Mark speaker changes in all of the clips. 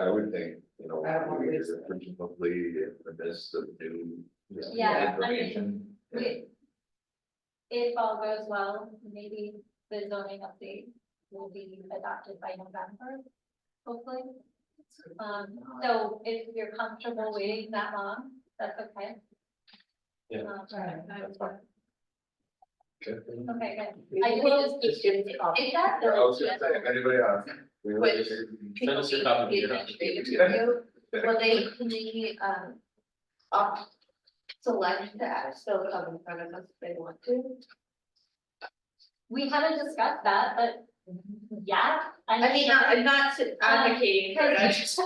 Speaker 1: I would think, you know,
Speaker 2: I don't want
Speaker 1: we
Speaker 2: to
Speaker 1: just
Speaker 2: waste it.
Speaker 1: presumably in the midst of new.
Speaker 3: Yeah, I mean,
Speaker 1: Information.
Speaker 3: we- If all goes well, maybe the zoning update will be adopted by November, hopefully. Um, so if you're comfortable waiting that long, that's okay.
Speaker 4: Yeah.
Speaker 3: Um,
Speaker 2: Right.
Speaker 4: That's fine.
Speaker 3: Okay, good. I
Speaker 2: I
Speaker 3: just-
Speaker 2: will just give it off.
Speaker 3: Is that?
Speaker 1: Yeah, I was gonna say, if anybody else. we were
Speaker 2: Which-
Speaker 1: just-
Speaker 4: Send us your copy of your-
Speaker 2: Administrative review, Will they, can they, um, opt, select that, still come in front of us if they want to?
Speaker 3: We haven't discussed that, but yeah.
Speaker 2: I mean, not- I'm not uh, advocating for it, I just.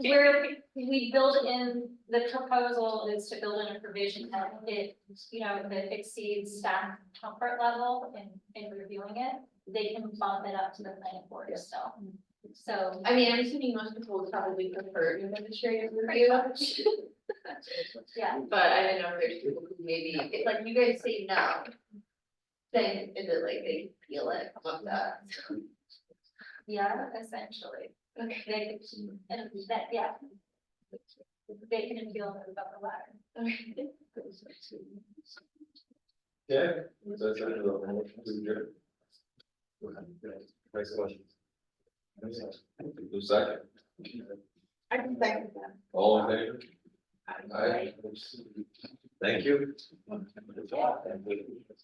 Speaker 3: Where we build in, the proposal is to build in a provision that it, you know, that exceeds staff comfort level in, in reviewing it. They can bump it up to the planning board still. So,
Speaker 2: I mean, I'm assuming most people would probably prefer an administrative review,
Speaker 3: yeah,
Speaker 2: but I don't know if there's people who maybe, it's like you guys say no. Then is it like they feel it, come up that?
Speaker 3: yeah, essentially.
Speaker 2: Okay.
Speaker 3: They can, and that, yeah. They can appeal it above the ladder.
Speaker 4: Yeah. That's a little more. Next question.
Speaker 1: Who's second?
Speaker 2: I can second that.
Speaker 1: All in favor? Aye. Thank you.